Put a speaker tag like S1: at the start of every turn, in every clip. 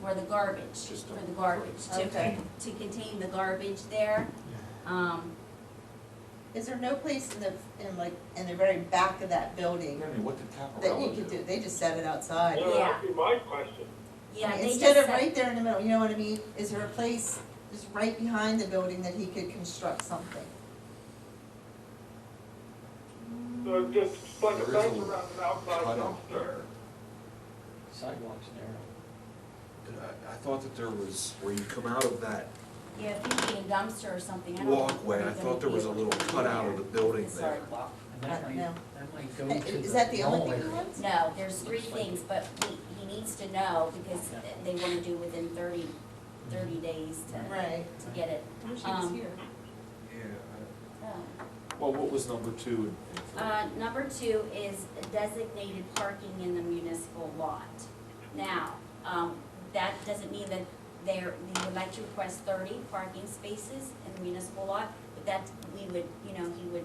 S1: for the garbage,
S2: Just
S1: for
S2: don't-
S1: the garbage, to,
S3: Okay.
S1: to contain the garbage there. Um,
S3: Is there no place in the, in like, in the very back of that building
S2: I mean, what did
S3: that
S2: Caparella
S3: you
S2: do?
S3: could do, they just set it outside?
S4: Yeah, that'd be my question.
S1: yeah, they just
S3: Instead of
S1: said,
S3: right there in the middle, you know what I mean? Is there a place just right behind the building that he could construct something?
S4: So just like a
S2: There is a
S4: fence around an outside
S2: Cut
S4: dumpster.
S2: off there.
S5: Sidewalks narrow.
S2: Uh, I, I thought that there was, where you come out of that
S1: yeah, if you need a dumpster or something, I don't. know if
S2: walkway, I
S1: they're
S2: thought there
S1: gonna
S2: was
S1: be
S2: a
S1: able
S2: little
S1: to do
S2: cutout
S1: that.
S2: of the building
S1: The
S2: there.
S1: sidewalk.
S5: And
S3: I
S5: that
S3: don't
S5: might,
S3: know.
S5: that might
S3: Uh,
S5: go to the.
S3: Is that the only
S5: mall
S3: thing he
S5: area.
S3: wants?
S1: No, there's three things, but he, he needs to know because
S5: Yeah.
S1: they wanna do within thirty, thirty days to,
S3: Right.
S1: to get it.
S3: Wish
S1: he was
S3: here.
S2: Yeah. I-
S1: Um,
S2: Well, what was number two and- and three?
S1: Uh, number two is designated parking in the municipal lot. Now, um, that doesn't mean that there, we would like to request thirty parking spaces in the municipal lot, but that, we would, you know, he would,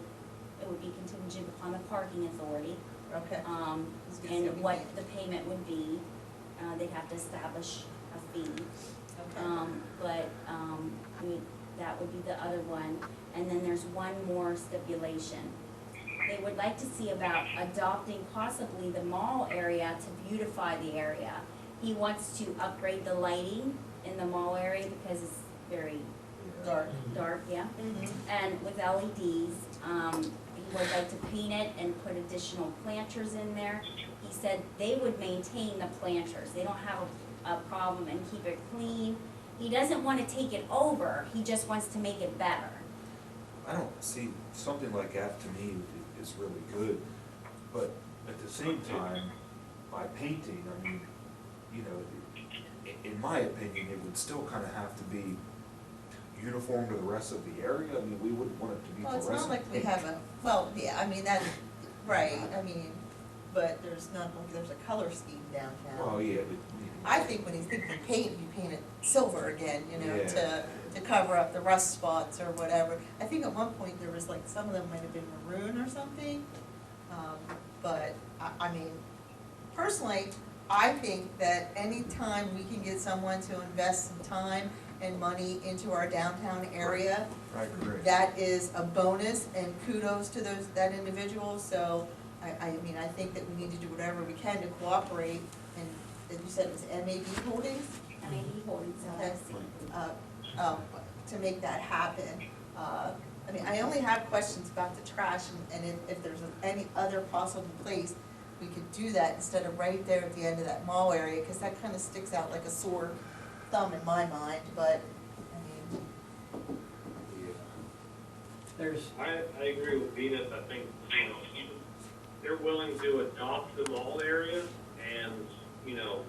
S1: it would be contingent upon the parking authority,
S3: Okay.
S1: um,
S3: I was gonna say
S1: and
S3: we
S1: what
S3: can't.
S1: the payment would be. Uh, they'd have to establish a fee.
S3: Okay.
S1: Um, but, um, we, that would be the other one, and then there's one more stipulation. They would like to see about adopting possibly the mall area to beautify the area. He wants to upgrade the lighting in the mall area because it's very
S2: Yeah.
S3: Dark.
S1: dark, yeah,
S3: Mhm.
S1: and with LEDs. Um, he would like to paint it and put additional planters in there. He said they would maintain the planters, they don't have a, a problem and keep it clean. He doesn't wanna take it over, he just wants to make it better.
S2: I don't see, something like that to me i- is really good, but at the same time, by painting, I mean, you know, i- in my opinion, it would still kind of have to be uniform to the rest of the area, I mean, we wouldn't want it to be
S3: Well, it's
S2: fluorescent.
S3: not like we
S2: pink.
S3: have a, well, yeah, I mean, that, right, I mean, but there's not, like there's a color scheme downtown.
S2: Well, yeah, but.
S3: I think when he's thinking paint, you paint it silver again, you know,
S2: Yeah.
S3: to, to cover up the rust spots or whatever. I think at one point there was like, some of them might have been maroon or something, um, but, I, I mean, personally, I think that any time we can get someone to invest some time and money into our downtown area,
S2: I agree.
S3: that is a bonus and kudos to those, that individual, so I, I mean, I think that we need to do whatever we can to cooperate and, as you said, it was MAB Holdings,
S1: I mean, he holds it,
S3: Okay. uh, um, to make that happen. Uh, I mean, I only have questions about the trash and, and if, if there's any other possible place we could do that instead of right there at the end of that mall area, cause that kinda sticks out like a sore thumb in my mind, but, I mean,
S5: There's,
S4: I, I agree with Venus, I think, you know, they're willing to adopt the mall area and, you know,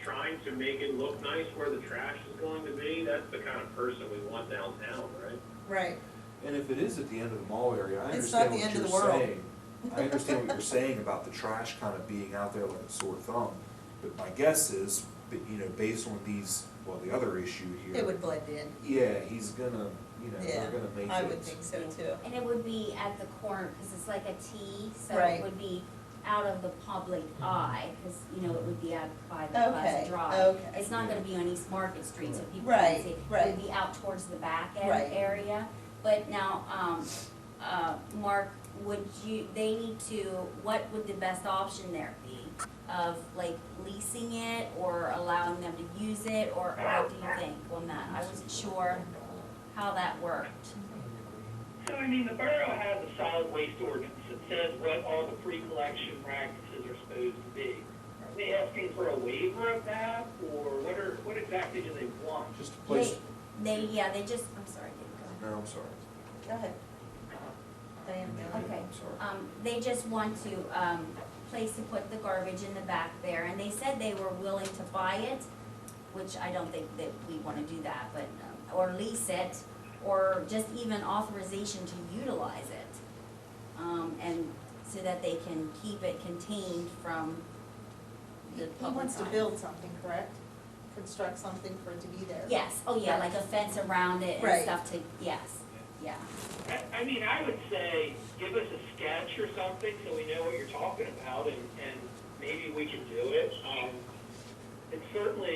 S4: trying to make it look nice where the trash is going to be, that's the kind of person we want downtown, right?
S3: right,
S2: And if it is at the end of the mall area, I
S3: It's not
S2: understand
S3: the
S2: what
S3: end of
S2: you're
S3: the world.
S2: saying. I understand what you're saying about the trash kind of being out there like a sore thumb, but my guess is, that, you know, based on these, well, the other issue here.
S3: it would blend in.
S2: Yeah, he's gonna, you know,
S3: Yeah,
S2: they're gonna make it.
S3: I would think so too.
S1: And it would be at the corner, because it's like a T, so
S3: Right.
S1: it would be out of the public eye, because, you know, it would be out by the
S3: Okay,
S1: Plaza Drive.
S3: okay.
S1: It's not gonna be on East Market Street, so people
S3: Right,
S1: can see. It
S3: right.
S1: would be out towards the back
S3: Right.
S1: end area. But now, um, uh, Mark, would you, they need to, what would the best option there be? Of like leasing it, or allowing them to use it, or what do you think on that? I wasn't sure how that worked.
S6: So, I mean, the borough has a solid waste ordinance that says what all the pre-collection practices are supposed to be. Are they asking for a waiver of that, or what are, what exactly do they want?
S2: Just a place,
S1: They, they, yeah, they just, I'm sorry, Dave, go ahead.
S2: no, I'm sorry.
S3: Go ahead. Diane, go ahead.
S1: Okay.
S2: I'm sorry.
S1: Um, they just want to, um, place to put the garbage in the back there, and they said they were willing to buy it, which I don't think that we wanna do that, but, um, or lease it, or just even authorization to utilize it. Um, and so that they can keep it contained from the
S3: He
S1: public
S3: wants to
S1: eye.
S3: build something, correct? Construct something for it to be there.
S1: Yes, oh yeah, like a fence around it
S3: Right.
S1: and stuff to, yes, yeah.
S6: I, I mean, I would say, give us a sketch or something, so we know what you're talking about, and, and maybe we can do it. Um, it's certainly